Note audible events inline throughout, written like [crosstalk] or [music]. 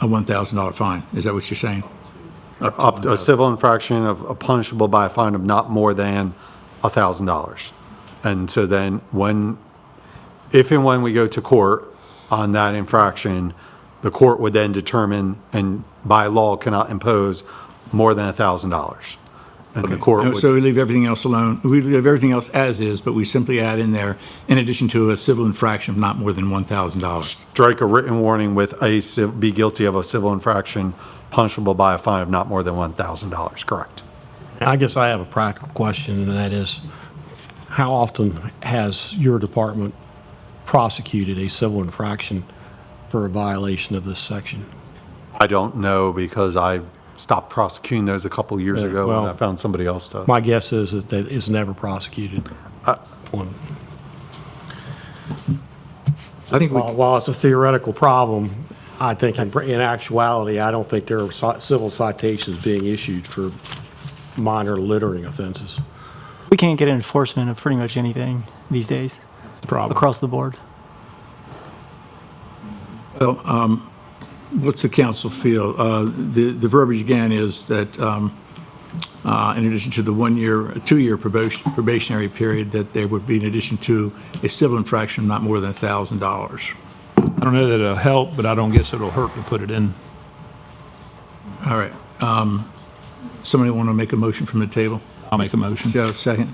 a $1,000 fine. Is that what you're saying? Up, a civil infraction of, uh, punishable by a fine of not more than a thousand dollars. And so then when, if and when we go to court on that infraction, the court would then determine and by law cannot impose more than a thousand dollars. And the court Uh, would. So we leave everything else alone. We leave everything else as is, but we simply add in there, in addition to a civil infraction of not more than $1,000. strike a written warning with a, civ- be guilty of a civil infraction punishable by a fine of not more than $1,000, correct? I guess I have a practical question, and that is, how often has your department prosecuted a civil infraction for a violation of this section? I don't know because I stopped prosecuting those a couple years Yeah, ago and well- I found somebody else to. My guess is that that is never prosecuted. One. I think we While while it's a theoretical problem, I think in in actuality, I don't think there are ci- civil citations being issued for minor littering offenses. We can't get enforcement of pretty much anything these days across the board. Well, um, what's the council feel? Uh, The the verbiage again is that um, uh, in addition to the one-year, two-year probation- probationary period, that there would be in addition to a civil infraction of not more than $1,000. I don't know that it'll help, but I don't guess it'll hurt to put it in. All right. Um, Somebody want to make a motion from the table? I'll make a motion. Joe, second?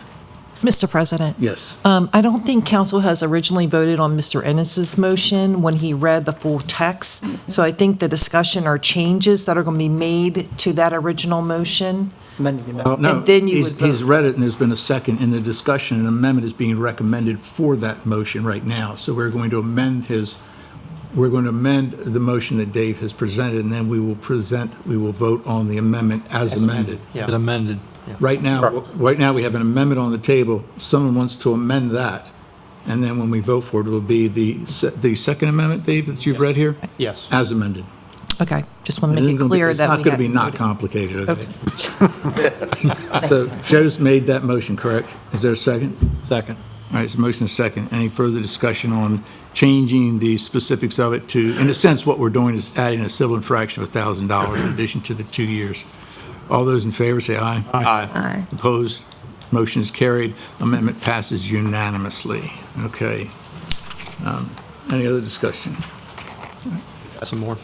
Mr. President, Yes. um, I don't think council has originally voted on Mr. Ennis's motion when he read the full text. So I think the discussion are changes that are going to be made to that original motion. Amending the amendment. Uh, No, And then you he's would vote. he's read it, and there's been a second, in the discussion, an amendment is being recommended for that motion right now. So we're going to amend his, we're going to amend the motion that Dave has presented, and then we will present, we will vote on the amendment as amended. It's amended. Right now, right now, we have an amendment on the table. Someone wants to amend that, and then when we vote for it, it'll be the, se- the second amendment, Dave, that you've read here? Yes. As amended. Okay, just want to And make it it's gonna be- clear that we It's not going to be hadn't not voted. complicated, okay? So Joe's made that motion, correct? Is there a second? Second. All right, so motion is second. Any further discussion on changing the specifics of it to, in a sense, what we're doing is adding a civil infraction of $1,000 in addition to the two years. All those in favor, say aye. Aye. Aye. Opposed? Motion is carried. Amendment passes unanimously. Okay. Um, Any other discussion? Um, Got some more.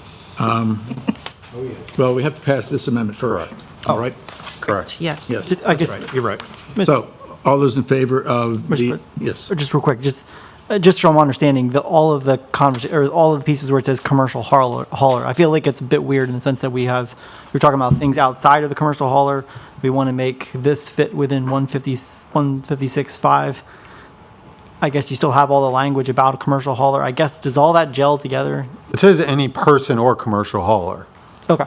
Well, we have to pass this amendment first. All right? Correct. Yes. Yes. I guess, Right, You're right. Mr. So, all those in favor of Mr. the, Pres- yes, or just real quick, just, uh, just from my understanding, the, all of the convers, or all of the pieces where it says commercial hauler, hauler, I feel like it's a bit weird in the sense that we have, we're talking about things outside of the commercial hauler. We want to make this fit within 150, 156.5. I guess you still have all the language about a commercial hauler. I guess, does all that gel together? It says any person or commercial hauler. Okay.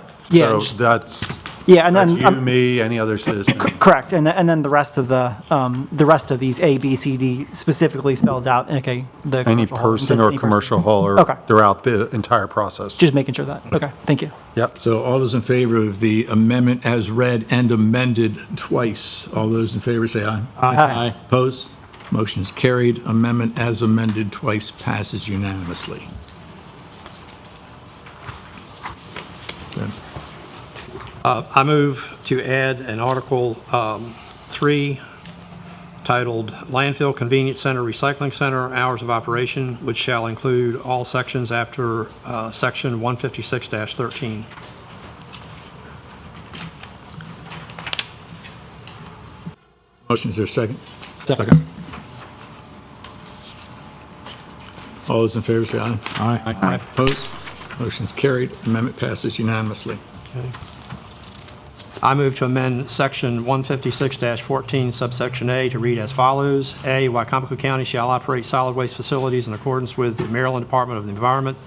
So Yeah, just- that's, yeah, and that's then. um, you, I'm- me, any other [coughs] citizen. Correct, and, the- and then the rest of the, um, the rest of these A, B, C, D specifically spells out, okay, the. Any commercial hauler. person Just or any person. commercial hauler Okay. throughout the entire process. Just making sure that, okay, thank you. Yep. so all those in favor of the amendment as read and amended twice, all those in favor say aye. Aye. Opposed? Motion is carried. Amendment as amended twice passes unanimously. Uh, I move to add an Article um, 3 titled Landfill Convenience Center Recycling Center Hours of Operation, which shall include all sections after uh, Section 156-13. Motion is there a second? Second. All those in favor say aye. Aye. Opposed? Motion is carried. Amendment passes unanimously. I move to amend Section 156-14 subsection A to read as follows. A, Wycomico County shall operate solid waste facilities in accordance with the Maryland Department of the Environment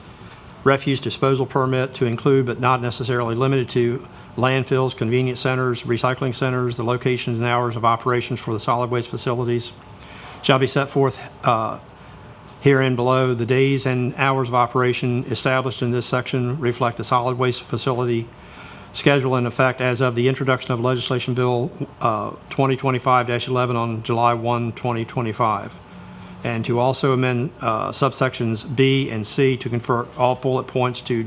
refuse disposal permit to include but not necessarily limited to landfills, convenience centers, recycling centers, the locations and hours of operations for the solid waste facilities shall be set forth uh, herein below. The days and hours of operation established in this section reflect the solid waste facility schedule in effect as of the introduction of legislation bill uh, 2025-11 on July 1, 2025. And to also amend uh, subsections B and C to convert all bullet points to